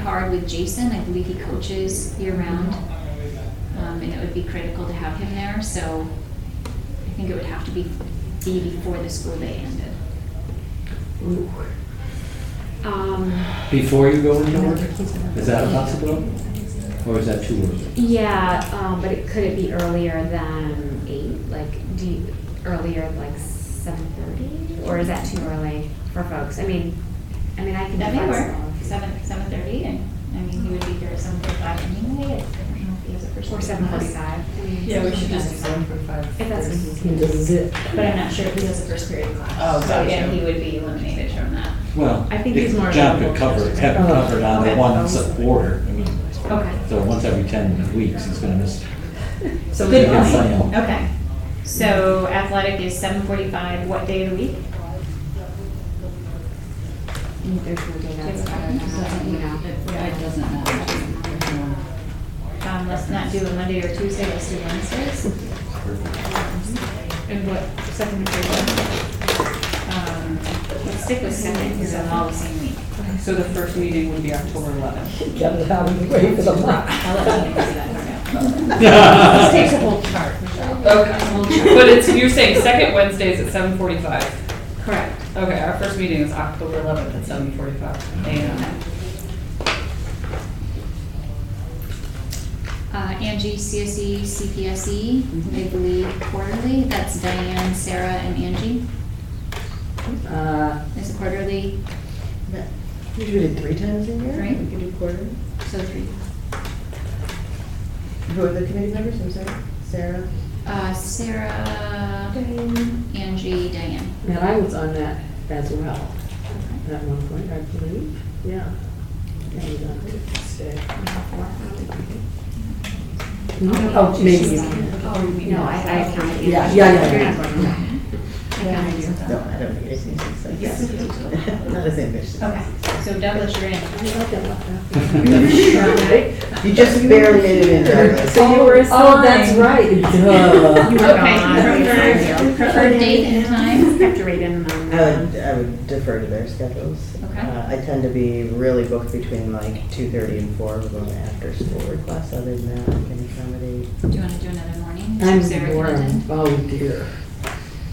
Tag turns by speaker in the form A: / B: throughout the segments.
A: hard with Jason. I believe he coaches year round. Um, and it would be critical to have him there, so I think it would have to be, be before the school day ended.
B: Um,
C: Before you go into work? Is that a possibility? Or is that too early?
B: yeah, um, but it, could it be earlier than eight? Like, do you, earlier, like seven thirty? Or is that too early for folks? I mean, I mean, I can.
A: That may work,
B: flexible.
A: seven, seven thirty, and, I mean, he would be here at seven forty-five anyway. I don't know if he has a person.
B: Or seven forty-five.
D: Yeah, we should just do seven for five.
B: If that's what you
E: And does it-
A: But I'm not sure if he has a first period class.
D: Oh,
A: So,
D: gotcha.
A: yeah, he would be eliminated from that.
C: Well,
D: I think he's more
C: John could
D: available
C: cover,
D: just-
C: have it
E: Oh.
C: covered on the
D: Okay.
C: one s- order. I mean,
B: Okay.
C: so once every ten weeks, he's gonna miss.
D: So we
A: Good
C: Yeah,
D: can,
C: sign
A: point,
C: up.
A: okay. So athletic is seven forty-five, what day of the week?
B: "Mm, There's no data that's better than that, you know.
F: It doesn't matter.
A: Um, let's not do a Monday or Tuesday, let's do Wednesdays.
D: and what, second to third?
A: Um, let's stick with seven, because I'm all the same week.
D: So the first meeting would be October eleventh.
E: Get it out of the way for the month.
A: I'll let you do that for now.
D: This takes a whole chart, Michelle.
A: Okay.
G: But it's, you're saying second Wednesdays at seven forty-five.
A: Correct.
G: Okay, our first meeting is October eleventh at seven forty-five AM.
A: Uh, Angie, E, CSE, CPSE, I believe quarterly, that's Diane, Sarah, and Angie,
E: Uh,
A: It's a quarterly,
E: You do it three times a year?
A: Right.
E: We can do quarter.
A: so three.
E: Who are the committee members, I'm sorry? Sarah?
A: Uh, Sarah, Angie, Diane.
E: And I was on that as well, at one point, I believe, yeah. And, uh, so- Hmm? Oh, maybe.
B: Oh, no, I, I counted. you.
E: Yeah, yeah, yeah,
B: You're
E: yeah.
B: not going to.
A: I counted you.
E: No, I don't think it's like, not the same person.
A: Okay, so Douglas, you're in.
E: You just barely made it in there.
B: So you were
E: Oh, that's
B: assigned.
E: right, duh.
B: You were
A: Okay,
B: gone.
A: preferred- preferred date and time?
B: Have to read in them.
H: I
E: Uh,
H: would, I would defer to their schedules.
A: Okay.
H: Uh, I tend to be really booked between like two-thirty and four, with an after-school request, other than that, I can accommodate.
A: Do you want to do another morning? So Sarah
E: I'm
A: can
E: warm,
A: attend.
E: oh dear.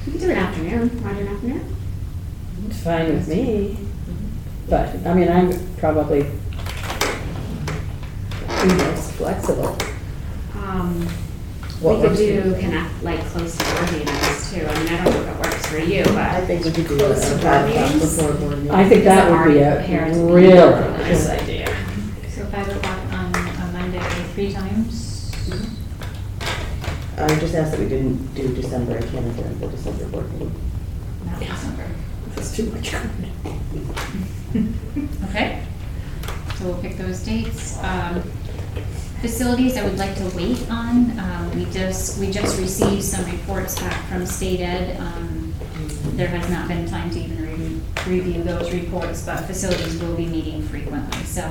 B: You can do an afternoon, want to do an afternoon?
E: It's fine with me, but, I mean, I'm probably, you know, flexible.
B: Um,
H: What
B: we could
H: works for
B: do
H: you?
B: connect, like, close to board meetings too, I mean, I don't know if it works for you,
H: I
B: but.
H: think we could do a
B: Close to
H: five o'clock
B: meetings?
H: before board meeting.
E: I think that would be
B: Our parents
E: a
B: meeting.
E: really
B: Nice
E: good
B: idea.
A: So five o'clock on on Monday, three times?
E: Mm-hmm.
H: I would just ask that we didn't do December, I can't attend the December board meeting.
A: Not December.
E: That's too much.
A: Okay. So we'll pick those dates. Um, Facilities I would like to wait on. Um, We just, we just received some reports back from state ed. Um, There has not been time to even re- review those reports, but facilities will be meeting frequently. So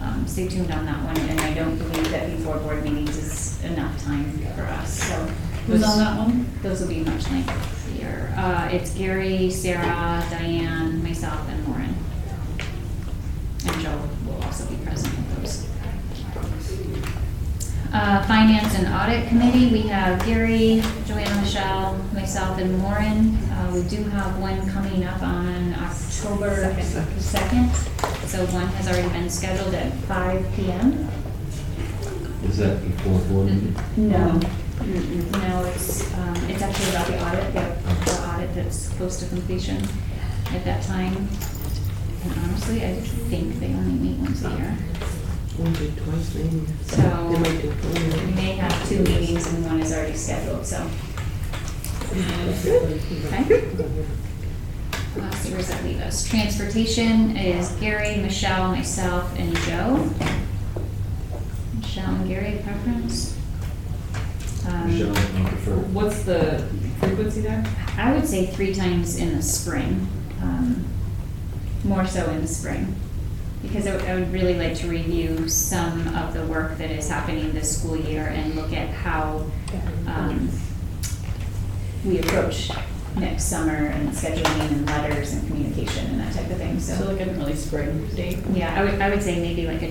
A: um, stay tuned on that one, and I don't believe that before board meetings is enough time for us, so.
D: Who's on that one?
A: Those will be much lengthier. Uh, It's Gary, Sarah, Diane, myself, and Lauren. And Joe will also be present at those. Uh, Finance and Audit Committee, we have Gary, Joanna Michelle, myself, and Lauren. Uh, We do have one coming up on October 2nd, so one has already been scheduled at 5 PM.
C: Is that before board meeting?
A: No. No, it's, um, it's actually about the audit, the the audit that's close to completion at that time. And honestly, I think they only meet once a year.
E: We'll do twice maybe.
A: So-
E: They might do
A: We
E: twenty.
A: may have two meetings and one is already scheduled, so. Okay. Uh, so where does that leave us? Transportation is Gary, Michelle, myself, and Joe. Michelle and Gary, preference? Um,
C: Michelle, I prefer.
G: What's the frequency there?
A: I would say three times in the spring, um, more so in the spring. Because I would, I would really like to review some of the work that is happening this school year and look at how, um, we approach next summer and scheduling and letters and communication and that type of thing,
D: So
A: so.
D: like an early spring date?
A: Yeah, I would, I would say maybe like a